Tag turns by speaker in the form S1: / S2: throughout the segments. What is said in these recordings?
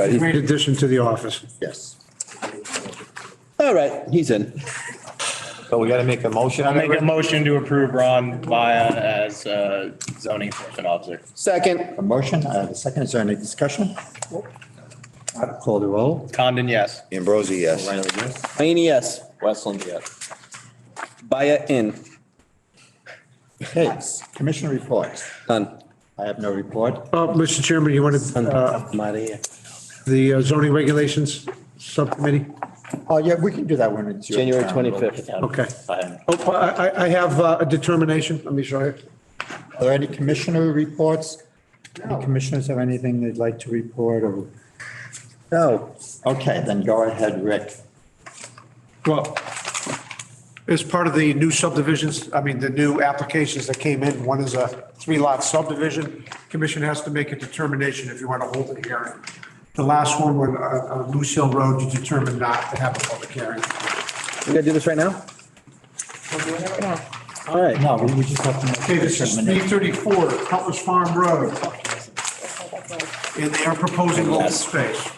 S1: Right.
S2: Great addition to the office.
S1: Yes.
S3: All right, he's in.
S1: So we gotta make a motion
S4: I'll
S1: on
S4: make a
S1: it.
S4: motion to approve Ron Vaya as uh, zoning enforcement officer.
S3: Second,
S1: A motion, I have a second. Is there any discussion? I'll Call the roll.
S4: Condon, yes.
S5: Ambrosi, yes.
S1: O'Reilly, yes.
S3: Mayne, yes. Westland, yes. Baya in,
S1: Okay, commission reports.
S3: done.
S1: I have no report.
S2: Uh, Mr. Chairman, you wanted uh,
S3: I'm out of here.
S2: the uh, zoning regulations subcommittee?
S1: Oh, yeah, we can do that when it's. your
S3: January
S1: turn.
S3: 25th.
S2: Okay. Oh, I, I- I have uh, a determination. Let me show you.
S1: Are there any commissioner reports? Any commissioners have anything they'd like to report or? No. Okay, then go ahead, Rick.
S2: Well, as part of the new subdivisions, I mean, the new applications that came in, one is a three-lot subdivision. Commission has to make a determination if you want to hold a hearing. The last one, when, uh, uh, Moose Hill Road, you determined not to have a public hearing.
S3: We gotta do this right now? All right,
S1: No, we we just have to make.
S2: Okay,
S1: a
S2: this is
S1: determination.
S2: 334 Cutlass Farm Road. And they are proposing open space.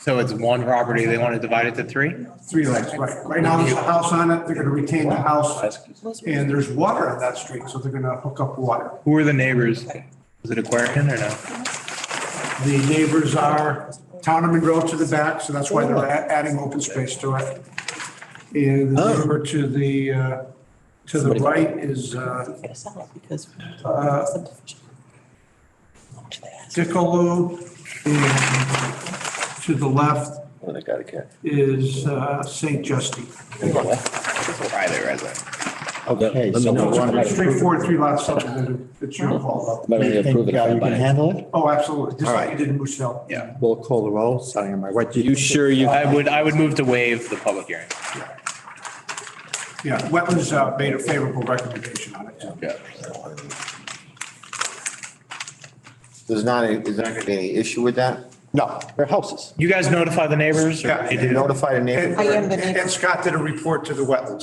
S4: So it's one property, they want to divide it to three?
S2: Three lights, right. Right now, there's a house on it. They're going to retain the house. And there's water on that street, so they're going to hook up water.
S4: Who are the neighbors? Is it Aquarian or no?
S2: The neighbors are Town and Monroe to the back, so that's why they're a- adding open space to it. And the neighbor to the, uh, to the right is uh,
S6: Get us out because.
S2: Uh, Dickaloo. And to the left
S5: Well, they gotta get.
S2: is uh, St. Justine.
S4: Private resident.
S1: Okay,
S3: Let me
S1: so
S3: know.
S1: we want to
S2: It's straightforward, three lot subdivision. It's your fault.
S3: But we
S1: You think,
S3: approve it
S1: uh,
S3: by
S1: you can
S3: Baya.
S1: handle it?
S2: Oh, absolutely. Just like
S1: Uh-huh. All
S2: you
S1: right.
S2: did in Moose Hill.
S4: Yeah.
S1: We'll call the roll, starting on my, what do you?
S3: You sure you?
S4: I would, I would move to waive the public hearing.
S2: Yeah, Wetlands uh, made a favorable recommendation on it.
S4: Yeah.
S5: There's not, a- there's not gonna be any issue with that?
S1: No.
S5: Their houses.
S4: You guys notify the neighbors? or-
S2: Yeah.
S4: You
S5: You
S4: do?
S5: notify the neighbor,
S6: I am the
S2: And-
S6: neighbor.
S2: And Scott did a report to the wetlands.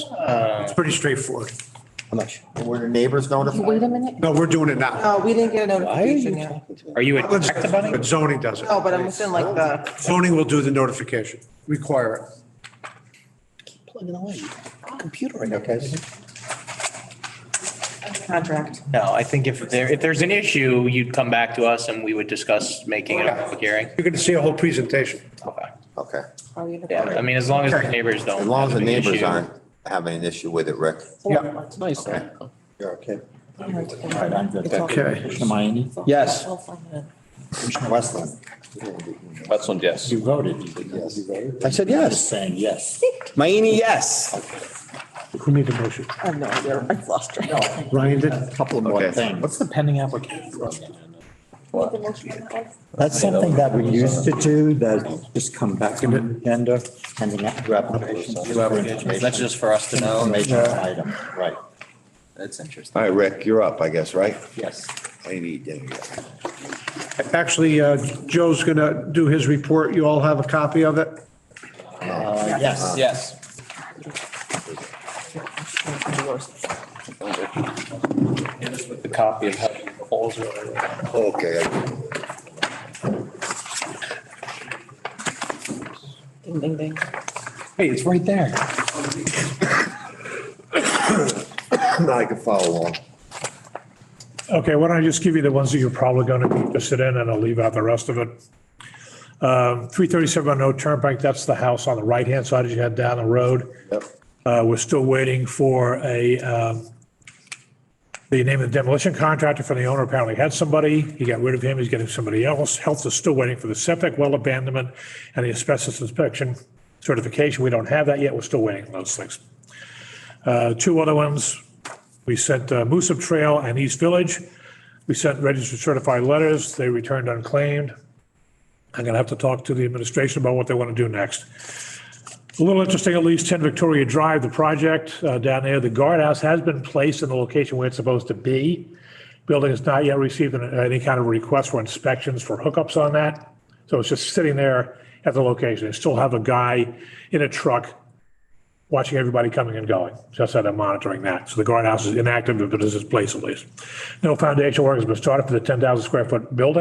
S2: It's pretty straightforward.
S3: How much?
S5: were the neighbors
S6: Wait
S5: notified?
S6: a minute.
S2: No, we're doing it now.
S6: No, Oh, we didn't get a
S3: Why are you
S6: notification yet.
S3: talking to me?
S4: Are you a
S2: Wetlands-
S4: tax bunny?
S2: But zoning does it.
S6: No, Oh, but I'm within like the,
S2: Zoning will do the notification, require it.
S3: Plugging away. Computer right now.
S1: Okay.
S6: contract.
S4: No, I think if there, if there's an issue, you'd come back to us and we would discuss making it a public hearing.
S2: You're going to see a whole presentation.
S4: Okay.
S5: Okay.
S6: Are you the-
S4: Yeah, I mean, as long as the neighbors don't.
S5: As long as the
S4: have an
S5: neighbors
S4: issue.
S5: aren't having an issue with it, Rick.
S2: Yeah.
S3: It's nice. though.
S1: You're okay. All right, I'm good.
S6: It's all-
S2: Okay.
S1: Commissioner Mayne,
S3: Yes.
S6: We'll find it.
S1: Commissioner Westland,
S3: Westland, yes.
S1: you voted. You said yes.
S3: I said yes.
S1: Saying yes.
S3: Mayne, yes.
S2: Who made the motion?
S6: I have no idea. I lost track.
S2: Ryan did?
S1: A Couple of more
S5: Okay.
S1: things.
S3: the pending application?
S1: That's something that we used to do, that just come back in the agenda, pending your application.
S7: That's just for us to know.
S1: Information item, right.
S7: That's interesting.
S5: All right, Rick, you're up, I guess, right?
S1: Yes.
S5: I need, there you go.
S2: Actually, uh, Joe's going to do his report. You all have a copy of it?
S1: Uh, Yes.
S7: Yes.
S4: The copy of how the holes were.
S5: Okay. I-
S6: Ding, ding, ding.
S7: Hey, it's right there.
S5: Now I can follow along.
S8: Okay, why don't I just give you the ones that you're probably going to be interested in, and I'll leave out the rest of it. Um, 337 on No Turnpike, that's the house on the right-hand side as you head down the road.
S5: Yep.
S8: Uh, We're still waiting for a, um, the name of the demolition contractor for the owner apparently had somebody. He got rid of him, he's getting somebody else. Health is still waiting for the septic well abandonment and the asbestos inspection certification. We don't have that yet, we're still waiting on those things. Uh, Two other ones, we sent uh, Moose Up Trail and East Village. We sent registered certified letters. They returned unclaimed. I'm going to have to talk to the administration about what they want to do next. A little interesting, at least 10 Victoria Drive, the project uh, down there, the guardhouse has been placed in the location where it's supposed to be. Building has not yet received an- any kind of request for inspections for hookups on that. So it's just sitting there at the location. They still have a guy in a truck watching everybody coming and going, just that I'm monitoring that. So the guardhouse is inactive, but it's in place at least. No foundation work has been started for the 10,000 square foot building.